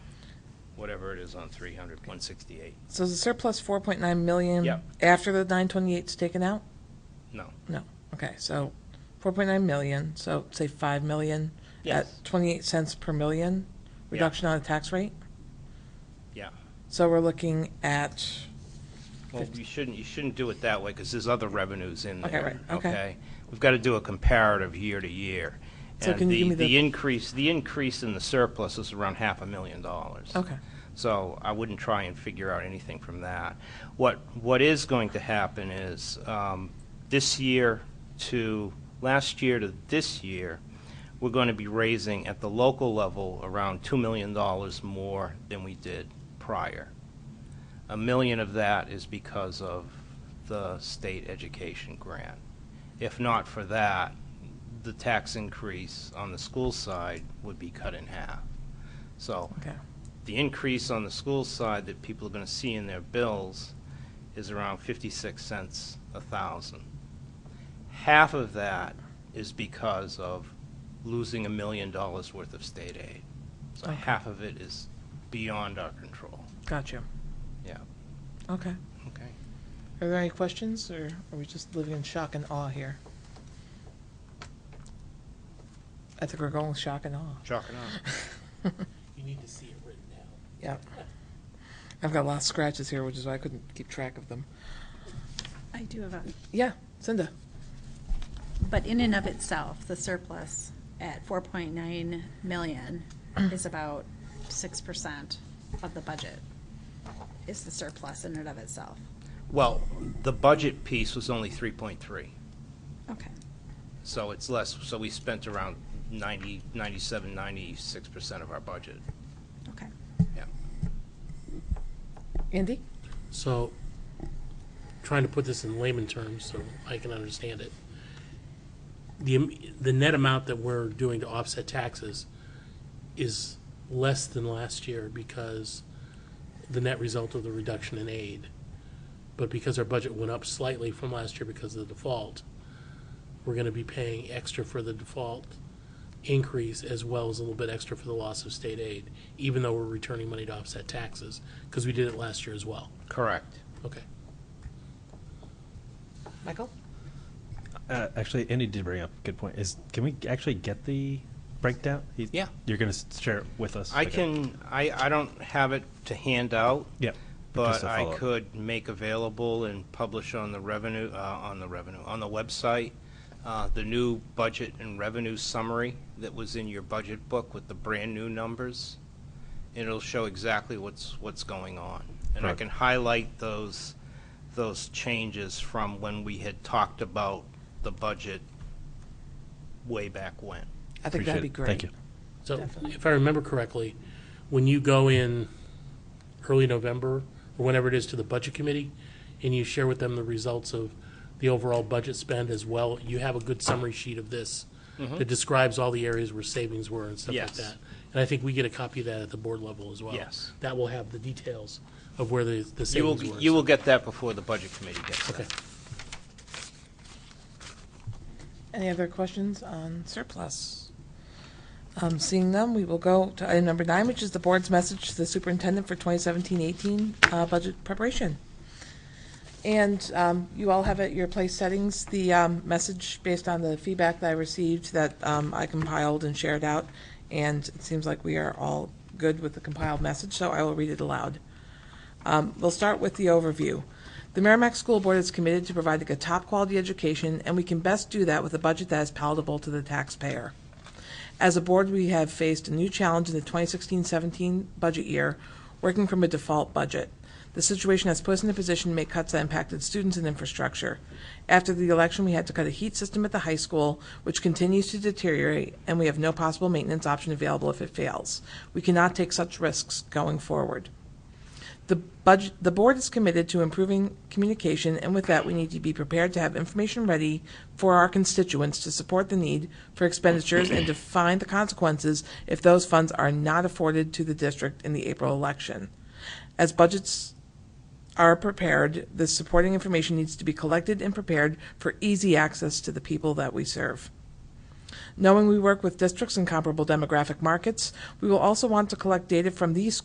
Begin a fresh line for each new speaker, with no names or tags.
whatever it is on 300, 168.
So is the surplus four point nine million?
Yep.
After the nine twenty-eight's taken out?
No,
No, okay, so four point nine million, so say five million
Yes.
at twenty-eight cents per million reduction on the tax rate?
yeah.
So we're looking at,
Well, you shouldn't, you shouldn't do it that way, because there's other revenues in
Okay,
there.
right, okay.
We've got to do a comparative year to year.
So can you give
And
me
the,
the-
the increase, the increase in the surplus is around half a million dollars.
okay,
So I wouldn't try and figure out anything from that. What, what is going to happen is, um, this year to, last year to this year, we're going to be raising at the local level around $2 million more than we did prior. A million of that is because of the state education grant. If not for that, the tax increase on the school side would be cut in half. So
okay.
the increase on the school side that people are going to see in their bills is around 56 cents a thousand. Half of that is because of losing a million dollars worth of state aid. So
Okay.
half of it is beyond our control.
Gotcha.
Yeah.
Okay.
Okay.
Are there any questions, or are we just living in shock and awe here? I think we're going with shock and awe.
Chalk it up.
You need to see it written down.
Yep. I've got a lot of scratches here, which is why I couldn't keep track of them.
I do have a,
Yeah, Cinda.
but in and of itself, the surplus at four point nine million is about six percent of the budget. Is the surplus in and of itself.
Well, the budget piece was only 3.3,
Okay.
so it's less, so we spent around 90, 97, 96% of our budget.
Okay.
Yeah.
Andy?
So, trying to put this in layman terms so I can understand it. The, am- the net amount that we're doing to offset taxes is less than last year because the net result of the reduction in aid. But because our budget went up slightly from last year because of the default, we're gonna be paying extra for the default increase as well as a little bit extra for the loss of state aid, even though we're returning money to offset taxes, because we did it last year as well.
Correct.
Okay.
Michael?
Uh, actually, Andy did bring up a good point. Is can we actually get the breakdown? He-
Yeah.
you're gonna s- share it with us.
I
Okay.
can, I, I don't have it to hand out,
Yeah,
but
Just a
I
follow-up.
could make available and publish on the revenue, uh, on the revenue, on the website, uh, the new budget and revenue summary that was in your budget book with the brand-new numbers. It'll show exactly what's, what's going on. And I
Right.
can highlight those, those changes from when we had talked about the budget way back when.
I think that'd
Appreciate
be
it.
great.
Thank you.
So
Definitely.
if I remember correctly, when you go in early November or whenever it is to the budget committee and you share with them the results of the overall budget spend as well, you have a good summary sheet of this that describes all the areas where savings were and stuff like
Mm-hmm. Yes.
that. And I think we get a copy of that at the board level as well.
Yes.
That will have the details of where the, the
You
savings
will,
were.
you will get that before the budget committee gets that.
Okay.
Any other questions on surplus? Um, seeing none, we will go to item number nine, which is the board's message to the superintendent for 2017-18 uh, budget preparation. And um, you all have at your place settings the um, message based on the feedback that I received that um, I compiled and shared out. And it seems like we are all good with the compiled message, so I will read it aloud. Um, We'll start with the overview. The Merrimack School Board is committed to providing a top-quality education, and we can best do that with a budget that is palatable to the taxpayer. As a board, we have faced a new challenge in the 2016-17 budget year, working from a default budget. The situation has put us in a position to make cuts that impacted students and infrastructure. After the election, we had to cut a heat system at the high school, which continues to deteriorate, and we have no possible maintenance option available if it fails. We cannot take such risks going forward. The budget, the board is committed to improving communication, and with that, we need to be prepared to have information ready for our constituents to support the need for expenditures and to find the consequences if those funds are not afforded to the district in the April election. As budgets are prepared, the supporting information needs to be collected and prepared for easy access to the people that we serve. Knowing we work with districts in comparable demographic markets, we will also want to collect data from these